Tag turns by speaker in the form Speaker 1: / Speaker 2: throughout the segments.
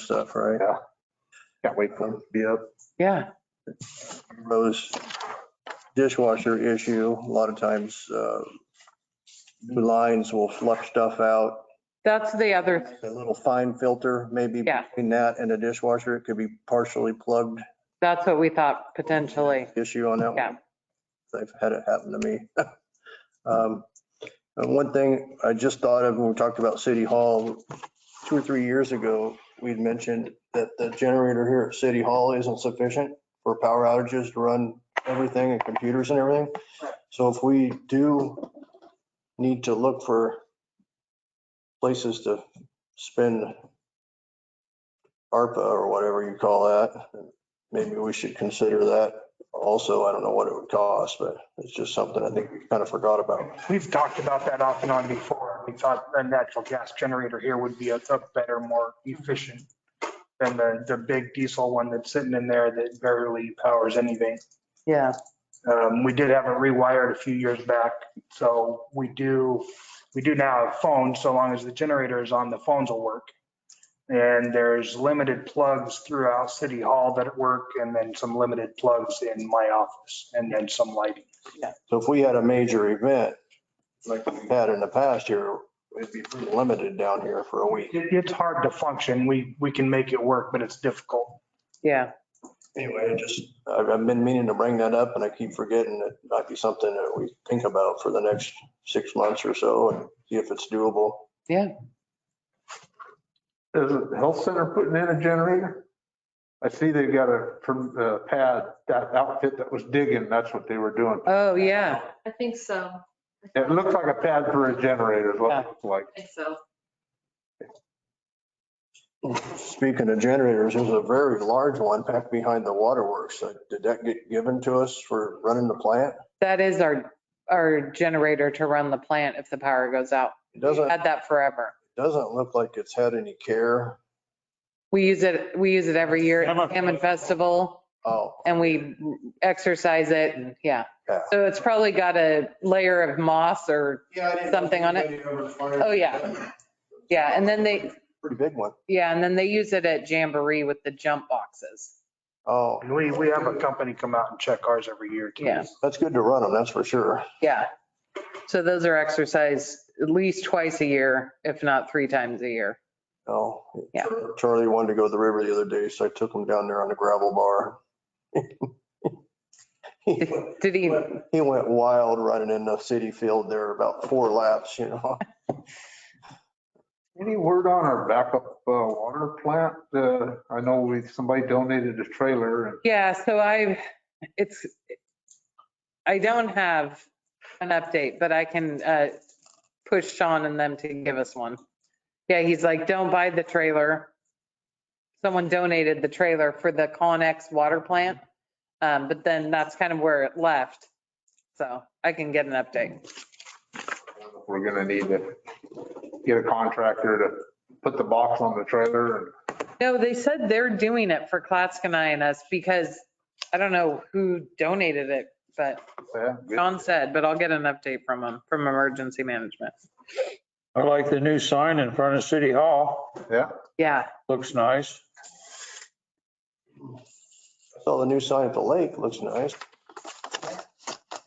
Speaker 1: stuff, right?
Speaker 2: Yeah. Can't wait for it.
Speaker 1: Be up,
Speaker 3: Yeah,
Speaker 1: those dishwasher issue, a lot of times, uh, new lines will flush stuff out
Speaker 3: that's the other,
Speaker 1: A little fine filter, maybe
Speaker 3: Yeah.
Speaker 1: between that and the dishwasher, it could be partially plugged
Speaker 3: that's what we thought potentially.
Speaker 1: issue on that
Speaker 3: Yeah.
Speaker 1: one. I've had it happen to me. Um, And one thing I just thought of when we talked about City Hall, two or three years ago, we'd mentioned that the generator here at City Hall isn't sufficient for power outages to run everything and computers and everything. So if we do need to look for places to spend ARPA or whatever you call that, maybe we should consider that also. I don't know what it would cost, but it's just something I think we kind of forgot about.
Speaker 4: We've talked about that off and on before. We thought a natural gas generator here would be a a better, more efficient than the, the big diesel one that's sitting in there that barely powers anything.
Speaker 3: Yeah,
Speaker 4: Um, We did have it rewired a few years back, so we do, we do now have phones, so long as the generator is on, the phones will work. And there's limited plugs throughout City Hall that work, and then some limited plugs in my office, and then some lighting.
Speaker 1: So if we had a major event, like we had in the past year, it'd be pretty limited down here for a week.
Speaker 4: It, it's hard to function. We, we can make it work, but it's difficult.
Speaker 3: yeah.
Speaker 1: Anyway, I just, I've, I've been meaning to bring that up and I keep forgetting it might be something that we think about for the next six months or so and see if it's doable.
Speaker 2: Is it the health center putting in a generator? I see they've got a perm- uh, pad, that outfit that was digging, that's what they were doing.
Speaker 3: Oh, yeah.
Speaker 5: I think so.
Speaker 2: It looks like a pad for a generator is what it looks like.
Speaker 5: I think so.
Speaker 1: Speaking of generators, there's a very large one back behind the waterworks. Uh, Did that get given to us for running the plant?
Speaker 3: That is our, our generator to run the plant if the power goes out.
Speaker 1: It
Speaker 3: We've
Speaker 1: doesn't,
Speaker 3: Had that forever.
Speaker 1: doesn't look like it's had any care.
Speaker 3: We use it, we use it every year at the
Speaker 2: Salmon.
Speaker 3: Salmon Festival
Speaker 1: Oh,
Speaker 3: and we exercise it and yeah.
Speaker 1: Yeah.
Speaker 3: So it's probably got a layer of moss or, Something on it? oh yeah. Yeah, and then they,
Speaker 1: pretty big one.
Speaker 3: yeah, and then they use it at Jamboree with the jump boxes.
Speaker 1: Oh,
Speaker 4: And we, we have a company come out and check ours every year too.
Speaker 3: Yeah.
Speaker 1: that's good to run them, that's for sure.
Speaker 3: Yeah. So those are exercised at least twice a year, if not three times a year.
Speaker 1: Oh.
Speaker 3: Yeah.
Speaker 1: Charlie wanted to go to the river the other day, so I took him down there on the gravel bar. He went-
Speaker 3: Did he,
Speaker 1: He went wild running in the city field there about four laps, you know.
Speaker 2: Any word on our backup uh, water plant? Uh, I know we, somebody donated a trailer and
Speaker 3: yeah, so I, it's, I don't have an update, but I can uh, push Sean and them to give us one. Yeah, he's like, don't buy the trailer. Someone donated the trailer for the Connex water plant, um, but then that's kind of where it left. So I can get an update.
Speaker 2: we're gonna need to get a contractor to put the box on the trailer and
Speaker 3: No, they said they're doing it for Klatskanai and us because I don't know who donated it, but
Speaker 2: yeah, good.
Speaker 3: John said, but I'll get an update from them, from emergency management.
Speaker 6: I like the new sign in front of City Hall.
Speaker 2: yeah.
Speaker 3: Yeah,
Speaker 6: Looks nice.
Speaker 1: Saw the new sign at the lake, looks nice.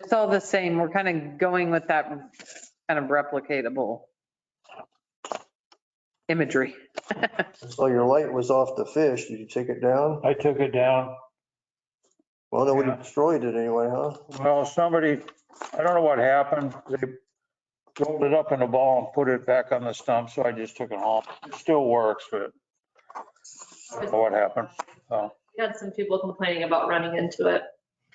Speaker 3: it's all the same. We're kind of going with that kind of replicatable imagery.
Speaker 1: So your light was off the fish, did you take it down?
Speaker 6: I took it down.
Speaker 1: Well, no, we
Speaker 6: Yeah.
Speaker 1: destroyed it anyway, huh?
Speaker 6: Well, somebody, I don't know what happened. They rolled it up in a ball and put it back on the stump, so I just took it home. It still works, but I don't know what happened. So,
Speaker 5: We had some people complaining about running into it.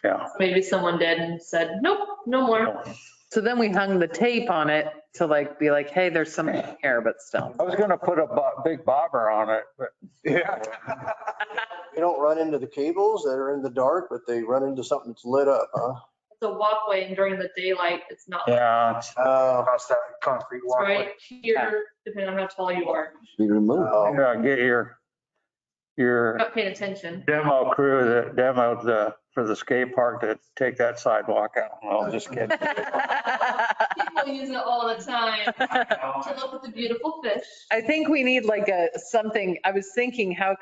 Speaker 6: yeah.
Speaker 5: Maybe someone did and said, nope, no more.
Speaker 3: So then we hung the tape on it to like, be like, hey, there's something here, but still.
Speaker 6: I was gonna put a bo- big bobber on it, but
Speaker 2: Yeah.
Speaker 1: They don't run into the cables that are in the dark, but they run into something that's lit up, huh?
Speaker 5: It's a walkway and during the daylight, it's not.
Speaker 6: yeah, it's-
Speaker 1: Oh,
Speaker 4: Across that concrete
Speaker 5: It's right
Speaker 4: walkway.
Speaker 5: here, depending on how tall you are.
Speaker 1: oh.
Speaker 6: yeah, get your, your
Speaker 5: Not paying attention.
Speaker 6: demo crew that demoed the, for the skate park to take that sidewalk out. No, I'm just kidding.
Speaker 5: People use it all the time to look at the beautiful fish.
Speaker 3: I think we need like a, something, I was thinking, how